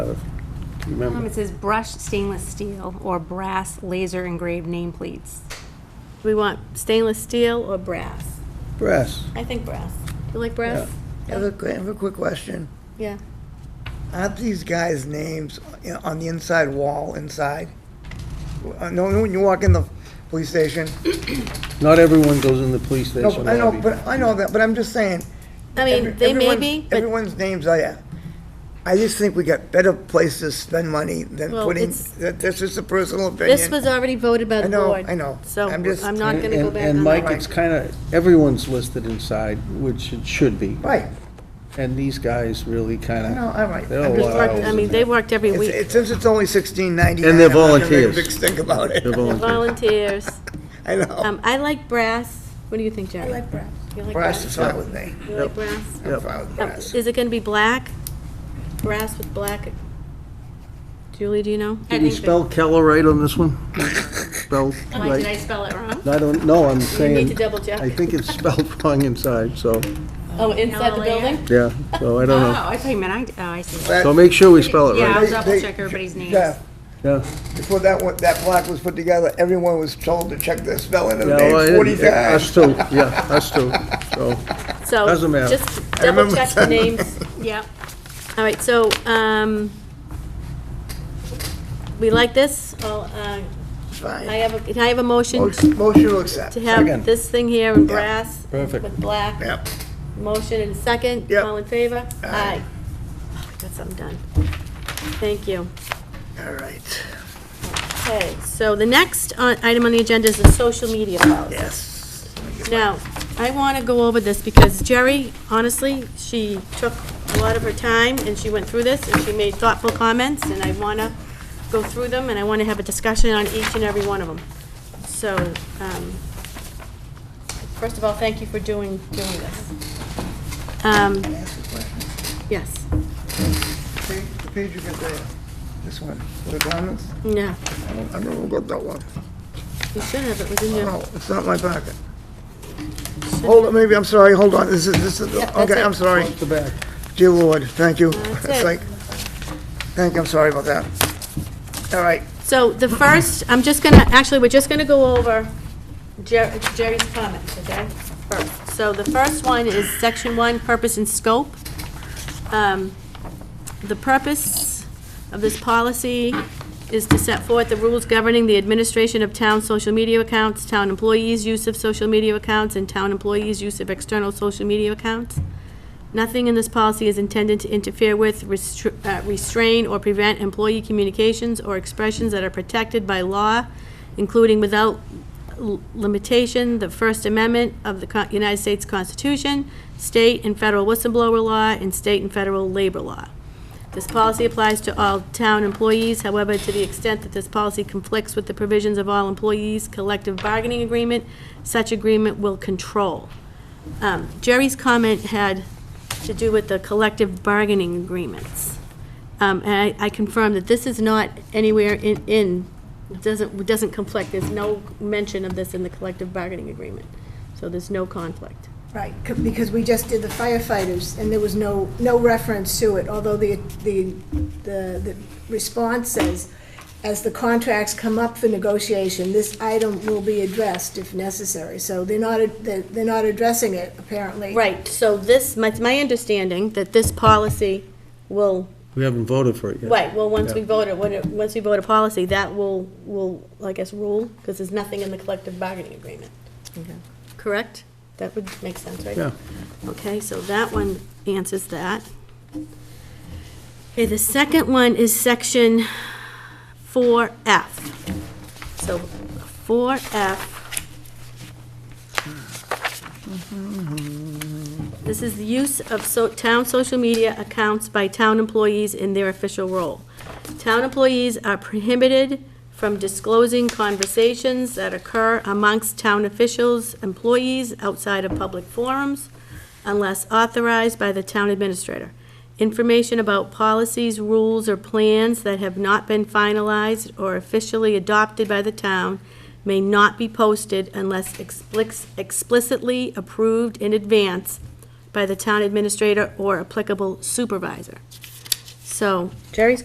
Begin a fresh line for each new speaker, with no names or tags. of? Do you
Um,
remember?
It says brushed stainless steel or brass laser engraved nameplates. Do we want stainless steel or brass?
Brass.
I think brass. You like
Yeah.
brass?
I have a, que- I have a quick question.
Yeah.
Aren't these guys' names in- on the inside wall inside? Uh, No, no, when you walk in the police station?
Not everyone goes in the police
No,
station
I know,
lobby.
but, I know that, but I'm just saying.
I mean,
every-
they may
everyone's-
be, but
Everyone's names are there. I just think we got better places to spend money than
Well,
putting,
it's-
that- that's just a personal opinion.
this was already voted by
I
the
know,
board.
I know.
So
I'm just-
I'm not going to
And-
go back
And
on
Mike,
that.
it's kind of, everyone's listed inside, which it should be.
Right,
And these guys really kind of.
no, all right.
They're all lot
They
of
worked- I
hours
mean,
in
they
there.
worked every
It's,
week.
it's- since it's only sixteen ninety-nine.
And they're
I'm not gonna
volunteers.
make a big stink about it.
They're volunteer.
Volunteers.
I know.
Um, I like brass. What do you think, Jerry? I like brass. You like
Brass
brass?
is fine with me.
You like brass?
I'm fine with
Um,
brass.
Is it going to be black? Brass with black? Julie, do you know?
Did we spell Keller right on this one? Spelled
Mike, did I
right?
spell it wrong?
I don't know, I'm
You need to
saying,
double check.
I think it's spelled wrong inside, so,
Oh, inside the building?
yeah, so I don't know.
I thought you meant, I, oh, I see.
So make sure we Uh-huh. spell it
Yeah,
right.
I'll
They-
double
they-
check everybody's names.
Yeah,
Yeah,
before that one, that block was put together, everyone was told to check the spelling of the
yeah, well,
name
I-
forty
us
times.
too, yeah, us too, so.
So,
Doesn't matter.
just double
remember
check the names. Yep. All right, so, um, we like this? I'll, uh,
Fine.
I have, a can I have a motion
Motion motion to accept.
to
Second.
have this thing here in brass?
Perfect.
With black?
Yep.
Motion and second?
Yep.
All in favor?
Aye.
Oh, I got something done. Thank you.
All right,
Okay, so the next uh, item on the agenda is the social media policy.
yes.
Now, I want to go over this because Jerry, honestly, she took a lot of her time and she went through this and she made thoughtful comments and I want to go through them and I want to have a discussion on each and every one of them. So, um, first of all, thank you for doing, doing this. Um,
Can I ask a question?
yes,
Pa- The page you got there, this one, the comments,
no,
I don't, I don't know about that one.
you should have, it was in your,
No, it's not my packet. Hold on, maybe, I'm sorry, hold on, this is, this is, the-
Yeah, that's
okay,
it.
I'm sorry.
The back.
Dear Lord, thank you.
That's
It's
it.
like, thank you, I'm sorry about that. All right,
so the first, I'm just going to, actually, we're just going to go over Jer- Jerry's comments, okay? First. So the first one is section one, purpose and scope. Um, The purpose of this policy is to set forth the rules governing the administration of town social media accounts, town employees' use of social media accounts, and town employees' use of external social media accounts. Nothing in this policy is intended to interfere with, restr- uh, restrain, or prevent employee communications or expressions that are protected by law, including without l- limitation, the First Amendment of the Co- United States Constitution, state and federal whistleblower law, and state and federal labor law. This policy applies to all town employees, however, to the extent that this policy conflicts with the provisions of all employees' collective bargaining agreement, such agreement will control. Um, Jerry's comment had to do with the collective bargaining agreements. Um, And I I confirm that this is not anywhere in- in, doesn't, doesn't conflict, there's no mention of this in the collective bargaining agreement, so there's no conflict.
Right, c- because we just did the firefighters, and there was no, no reference to it, although the, the, the the response says, as the contracts come up for negotiation, this item will be addressed if necessary. So they're not, ad- they're they're not addressing it, apparently.
Right, so this, my, my understanding, that this policy will
We haven't voted for it yet.
Right, well, once we
Yeah.
vote it, when it, once we vote a policy, that will, will, I guess, rule, because there's nothing in the collective bargaining agreement. Correct? That would make sense, right?
Yeah.
Okay, so that one answers that. Okay, the second one is section four F. So, four F. This is the use of so, town social media accounts by town employees in their official role. Town employees are prohibited from disclosing conversations that occur amongst town officials, employees outside of public forums, unless authorized by the town administrator. Information about policies, rules, or plans that have not been finalized or officially adopted by the town may not be posted unless explic- explicitly approved in advance by the town administrator or applicable supervisor. So Jerry's